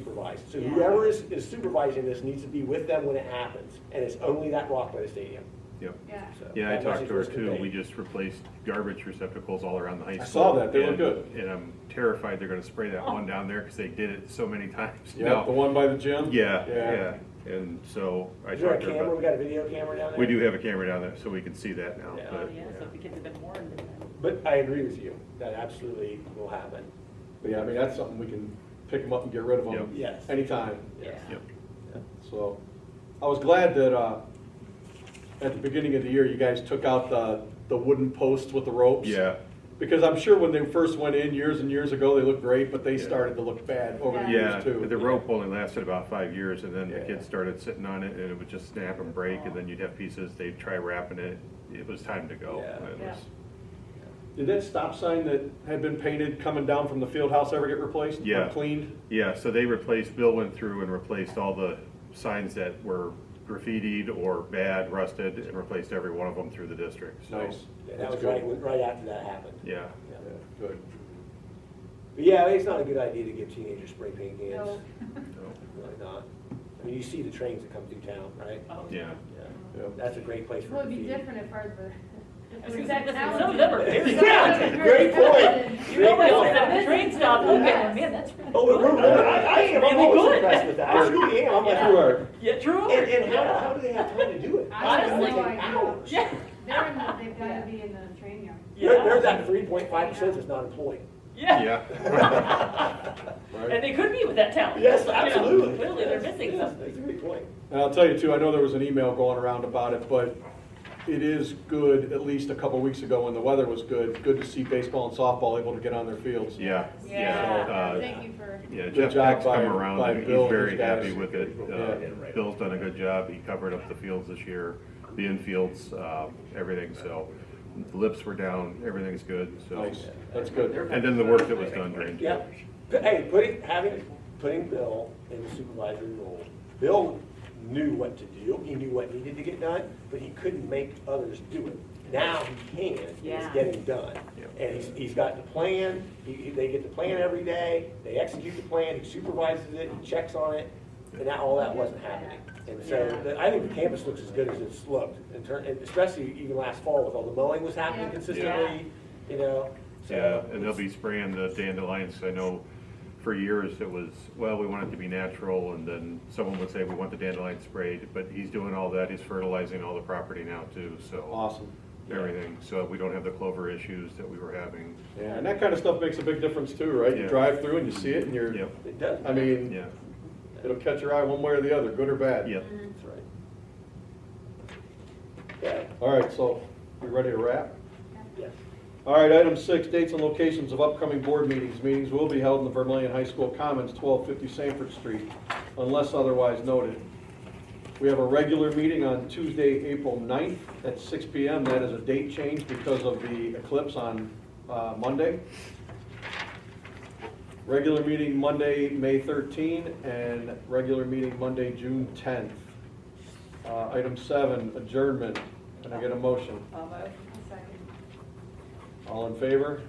supervised. So Yeah. whoever is, is supervising this needs to be with them when it happens, and it's only that rock by the stadium. Yep. Yeah. So Yeah, I that talked message to her was too. conveyed. We just replaced garbage receptacles all around the high school. I saw that. They look and- good. And I'm terrified they're gonna spray Oh. that one down there because they did it so many times Yeah, now. the one by the gym? Yeah, yeah. And so I Is there a talked to her camera? We about, got a video camera down there? we do have a camera down there so we can see that now, Yeah. Oh, but, yeah, so if the kids have been warned of that. But I agree with you. That absolutely will happen. But yeah, I mean, that's something we can pick them up and get rid of Yep. them. Yes. Anytime. Yeah. yep. So, I was glad that, uh, at the beginning of the year, you guys took out the, the wooden posts with the ropes. Yeah, Because I'm sure when they first went in years and years ago, they looked great, but they Yeah. started to look bad over the yeah. years too. The rope only lasted about five years and then the Yeah. kids started sitting on it and it would just snap and break and then you'd have pieces, they'd try wrapping it. It was time to go. Yeah. It Yeah. was- Did that stop sign that had been painted coming down from the field house ever get replaced? or Yeah. Cleaned? Yeah, so they replaced, Bill went through and replaced all the signs that were graffitied or bad, rusted, and replaced every one of them through the district, so. Nice. Yeah, That That's was good. right, right after that happened. Yeah, Yeah. Yeah, Good. But yeah, it's not a good idea to give teenagers spray paint cans. so, Really not. I mean, you see the trains that come through town, right? Oh, yeah, Yeah. Yep. That's a great place for. Uh-huh. Well, it'd be graffiti. different if ours were. That's Since exactly- that some of them are talent- very Yeah, great point. You know, Great I point. at the train stop, look at them, man, that's really Oh, we're, good. we're, I, I am, I'm Really always good. impressed with that. I truly am. I'm like, Yeah. you are. Yeah, true. And, and how, how do they have time to do it? I have God, it's no like idea. hours. Yeah. They're in the, they've Yeah. gotta be in the train yard. There- There's that three point five percent that's not employed. Yeah, yeah. Right. and they could be with that talent. Yes, You know, absolutely. Clearly, they're Yes, missing yes, something. That's a great point. And I'll tell you too, I know there was an email going around about it, but it is good, at least a couple weeks ago when the weather was good, good to see baseball and softball able to get on their fields. Yeah, yeah. Yeah, uh, Thank you for, Yeah, Good Jeff job Peck's by- come around, by and he's Bill and very these guys. happy with it. Yeah. Uh, Bill's done a good job, he covered up the fields this year, the infields, um, everything, so. The lips were down, everything's good, so. Nice, that's good. And then the work that was done during. Yeah. But, Hey, putting, having, putting Bill in the supervisory role, Bill knew what to do, he knew what needed to get done, but he couldn't make others do it. Now he can, and it's Yeah. getting done. Yep. And he's, he's got the plan, he, he- they get the plan every day, they execute the plan, he supervises it, he checks on it, and that, all that wasn't happening. And so, Yeah. the- I think the campus looks as good as it's looked, in turn, and especially even last fall with all the mowing was happening Yeah. consistently, you know? so Yeah, and they'll it's- be spraying the dandelions, 'cause I know for years it was, well, we want it to be natural, and then someone would say, we want the dandelion sprayed, but he's doing all that, he's fertilizing all the property now too, so, Awesome. everything, so we don't have the clover issues that we were having. Yeah, and that kind of stuff makes a big difference too, right? You Yeah. drive through and you see it and you're, Yep, It does. I mean, yeah, it'll catch your eye one way or the other, good or bad. yep. That's right. Okay, All right, so, you ready to wrap? yes. All right, item six, dates and locations of upcoming board meetings. Meetings will be held in the Vermillion High School Commons, 1250 Sanford Street, unless otherwise noted. We have a regular meeting on Tuesday, April 9th at 6 PM. That is a date change because of the eclipse on uh, Monday. Regular meeting Monday, May 13, and regular meeting Monday, June 10th. Uh, Item seven, adjournment. Can I get a motion? Um, I- All in favor?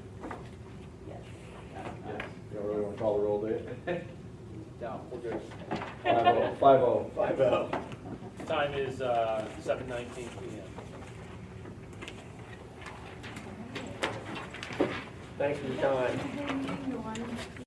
yes. You don't really want to call the roll, do you? No. Five oh, five oh. Five oh. Time is, uh, seven nineteen P M. Thanks for your time. Is there anything you wanted?